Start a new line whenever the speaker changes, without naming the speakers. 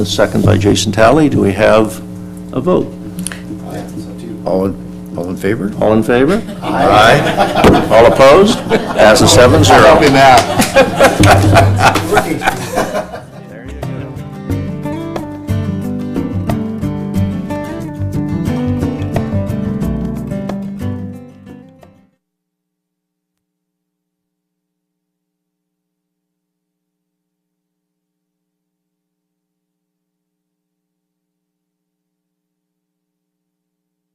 A second by Jason Talley. Do we have a vote?
All, in- all in favor?
All in favor? Aye. All opposed? Passes seven zero.
Help him out.